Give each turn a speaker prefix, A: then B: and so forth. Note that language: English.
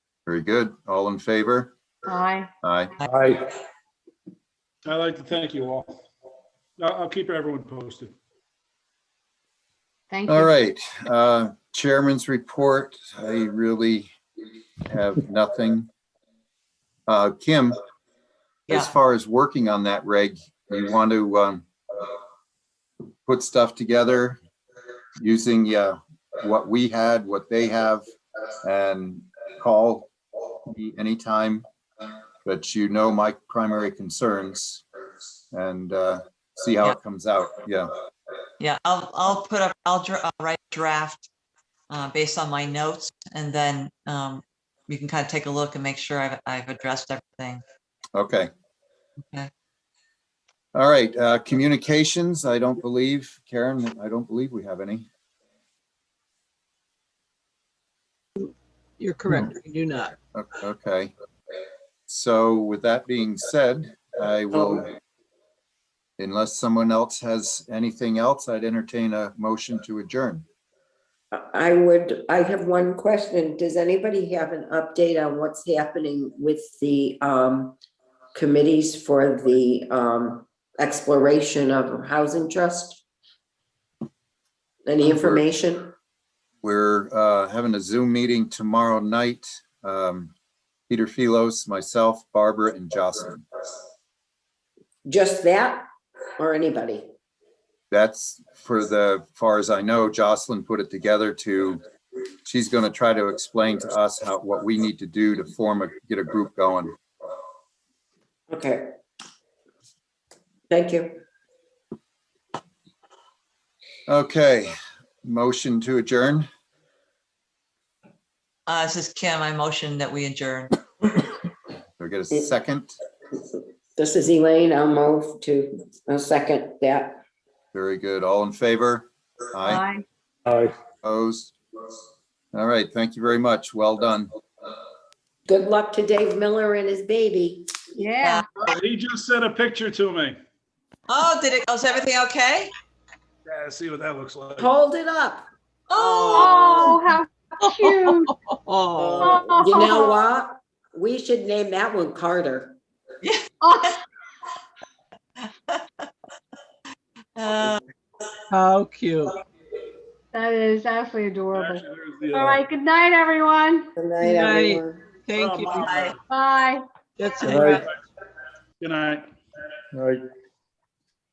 A: Very good. All in favor?
B: Aye.
A: Aye.
C: Aye.
D: I'd like to thank you all. I'll, I'll keep everyone posted.
B: Thank you.
A: All right, uh, Chairman's report. I really have nothing. Uh, Kim,
E: Yeah.
A: as far as working on that reg, you want to um, put stuff together using uh, what we had, what they have, and call me anytime. But you know my primary concerns and uh, see how
E: Yeah.
A: it comes out. Yeah,
E: Yeah, I'll, I'll put up, I'll dra- I'll write a draft uh, based on my notes and then um, you can kind of take a look and make sure I've, I've addressed everything.
A: okay.
E: Okay.
A: All right, uh, communications, I don't believe, Karen, I don't believe we have any.
F: You're correct, we do not.
A: O- Okay. So with that being said, I will, unless someone else has anything else, I'd entertain a motion to adjourn.
G: I would, I have one question. Does anybody have an update on what's happening with the um committees for the um exploration of housing trust? Any information?
A: We're uh, having a Zoom meeting tomorrow night. Um, Peter Philos, myself, Barbara, and Jocelyn.
G: Just that or anybody?
A: That's for the, far as I know, Jocelyn put it together to, she's going to try to explain to us how, what we need to do to form a, get a group going.
G: Okay. Thank you.
A: Okay, motion to adjourn.
E: Uh, This is Kim, I motion that we adjourn.
A: Do we get a second?
G: This is Elaine. I'll move to a second that.
A: Very good. All in favor? Aye,
B: Aye.
C: Aye.
A: opposed? All right, thank you very much. Well done.
G: Good luck to Dave Miller and his baby.
B: Yeah.
D: He just sent a picture to me.
E: Oh, did it, was everything okay?
D: Yeah, see what that looks like.
G: Hold it up.
E: Oh,
B: Oh, how cute.
F: Oh,
B: Oh.
G: You know what? We should name that one Carter.
B: Oh,
E: uh,
F: how cute.
B: That is absolutely adorable.
D: Actually, there's the, uh,
B: All right, good night, everyone.
G: Good
F: Good
G: night,
F: night.
G: everyone.
F: Thank you.
D: Bye.
B: Bye.
F: That's
C: Aye.
F: it.
D: Good night.
C: Aye.